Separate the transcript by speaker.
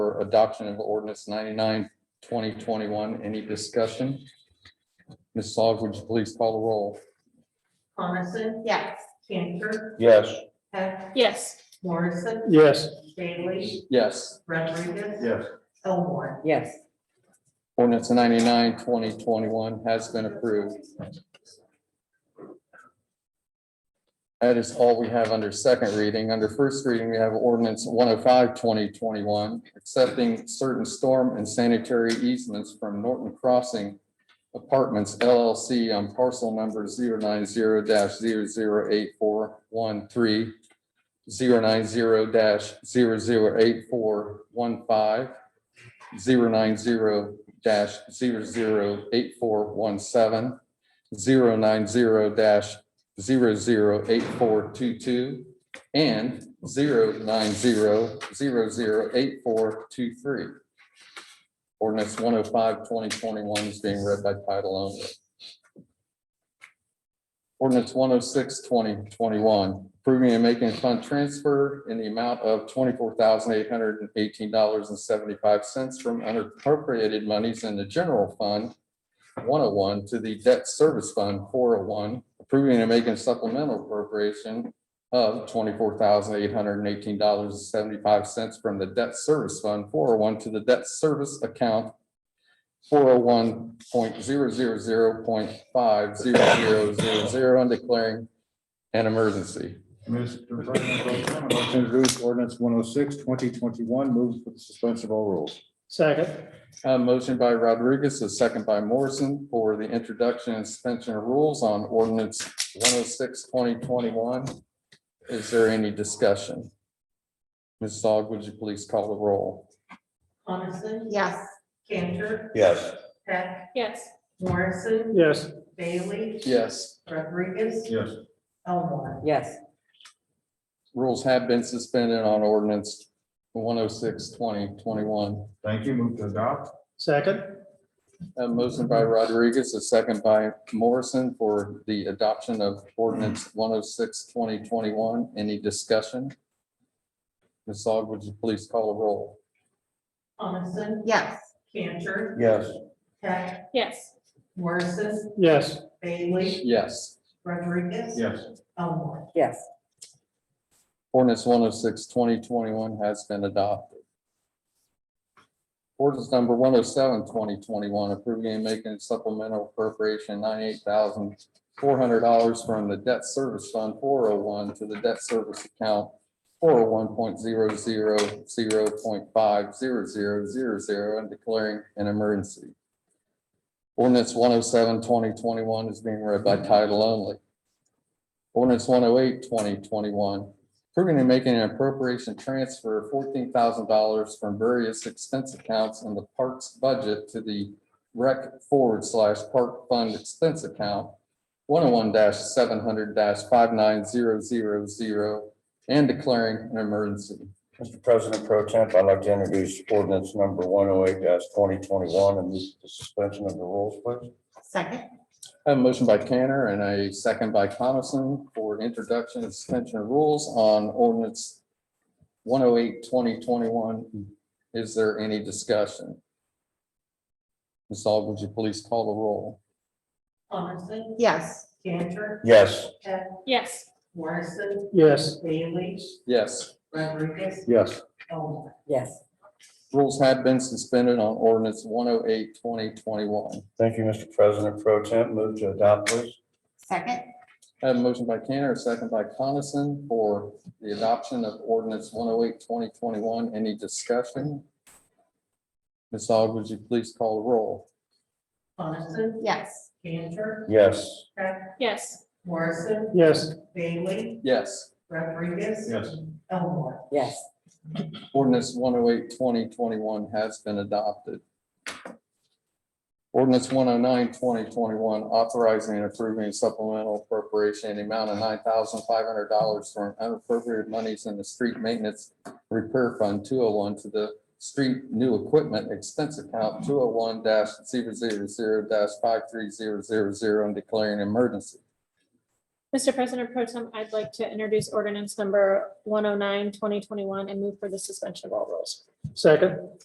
Speaker 1: for adoption of ordinance 99 2021. Any discussion? Ms. Aug, would you please call the roll?
Speaker 2: Coniston,
Speaker 3: Yes.
Speaker 2: Cantor,
Speaker 4: Yes.
Speaker 2: Heck,
Speaker 3: Yes.
Speaker 2: Morrison,
Speaker 4: Yes.
Speaker 2: Bailey,
Speaker 1: Yes.
Speaker 2: Rodriguez,
Speaker 4: Yes.
Speaker 2: Elmore.
Speaker 5: yes,
Speaker 1: Ordinance 99 2021 has been approved. That is all we have under second reading. Under first reading, we have ordinance 105 2021, accepting certain storm and sanitary easements from Norton Crossing Apartments LLC on parcel number 090-0084130, 090-0084130, zero nine zero dash zero zero eight four one seven, zero nine zero dash zero zero eight four two two, and zero nine zero zero zero eight four two three. Ordinance 105 2021 is being read by title only. Ordinance 106 2021 approving and making a fund transfer in the amount of twenty-four thousand eight hundred and eighteen dollars and seventy-five cents from unappropriated monies in the general fund one oh one to the debt service fund four oh one, approving and making supplemental appropriation of twenty-four thousand eight hundred and eighteen dollars and seventy-five cents from the debt service fund four oh one to the debt service account four oh one point zero zero zero point five zero zero zero zero and declaring an emergency.
Speaker 4: Mr. President, Pro Tem, I'd like to introduce ordinance 106 2021. move for the suspension of all rules.
Speaker 6: second,
Speaker 1: A motion by Rodriguez, a second by Morrison for the introduction and suspension of rules on ordinance 106 2021. Is there any discussion? Ms. Aug, would you please call the roll?
Speaker 2: Coniston.
Speaker 3: Yes.
Speaker 2: Cantor,
Speaker 4: Yes.
Speaker 2: Heck,
Speaker 3: Yes.
Speaker 2: Morrison,
Speaker 6: yes,
Speaker 2: Bailey,
Speaker 1: Yes,
Speaker 2: Rodriguez,
Speaker 4: Yes.
Speaker 2: Elmore.
Speaker 5: yes,
Speaker 1: rules have been suspended on ordinance 106 2021.
Speaker 4: Thank you. Move to adopt.
Speaker 6: second,
Speaker 1: A motion by Rodriguez, a second by Morrison for the adoption of ordinance 106 2021. Any discussion? Ms. Aug, would you please call the roll?
Speaker 2: Coniston,
Speaker 3: Yes.
Speaker 2: Cantor,
Speaker 4: Yes.
Speaker 2: Heck,
Speaker 3: Yes.
Speaker 2: Morrison,
Speaker 6: yes,
Speaker 2: Bailey,
Speaker 1: Yes.
Speaker 2: Rodriguez.
Speaker 4: Yes.
Speaker 2: Elmore.
Speaker 5: yes,
Speaker 1: Ordinance 106 2021 has been adopted. Ordinance number 107 2021 approving and making supplemental appropriation ninety-eight thousand four hundred dollars from the debt service fund four oh one to the debt service account four oh one point zero zero zero point five zero zero zero zero and declaring an emergency. Ordinance 107 2021 is being read by title only. Ordinance 108 2021 approving and making an appropriation transfer of fourteen thousand dollars from various expense accounts in the parks budget to the rec forward slash park fund expense account one oh one seven hundred five nine zero zero zero and declaring an emergency.
Speaker 7: Mr. President Pro Temp, I'd like to introduce ordinance number one oh eight twenty twenty-one and move the suspension of the rules, please.
Speaker 3: Second.
Speaker 1: I have a motion by Cantor and a second by Coniston for introduction and suspension of rules on ordinance 108 2021. Is there any discussion? Ms. Aug, would you please call the roll?
Speaker 2: Coniston,
Speaker 3: Yes.
Speaker 2: Cantor,
Speaker 7: Yes.
Speaker 2: Heck,
Speaker 3: Yes.
Speaker 2: Morrison,
Speaker 6: yes,
Speaker 2: Bailey,
Speaker 1: Yes.
Speaker 2: Rodriguez,
Speaker 4: Yes.
Speaker 2: Elmore.
Speaker 5: yes,
Speaker 1: Rules have been suspended on ordinance 108 2021.
Speaker 7: Thank you, Mr. President Pro Temp. Move to adopt, please.
Speaker 3: Second.
Speaker 1: I have a motion by Cantor, a second by Coniston for the adoption of ordinance 108 2021. Any discussion? Ms. Aug, would you please call the roll?
Speaker 2: Coniston,
Speaker 3: Yes.
Speaker 2: Cantor,
Speaker 7: Yes.
Speaker 2: Heck,
Speaker 3: Yes.
Speaker 2: Morrison,
Speaker 6: yes,
Speaker 2: Bailey,
Speaker 1: Yes.
Speaker 2: Rodriguez.
Speaker 4: Yes.
Speaker 2: Elmore.
Speaker 5: yes,
Speaker 1: Ordinance 108 2021 has been adopted. Ordinance 109 2021 authorizing and approving supplemental appropriation in the amount of nine thousand five hundred dollars from unappropriated monies in the street maintenance repair fund two oh one to the street new equipment expense account two oh one 0 five three zero zero zero and declaring an emergency.
Speaker 3: Mr. President Pro Tem, I'd like to introduce oh ordinance number 109 2021 and move for the suspension of all rules.
Speaker 6: second,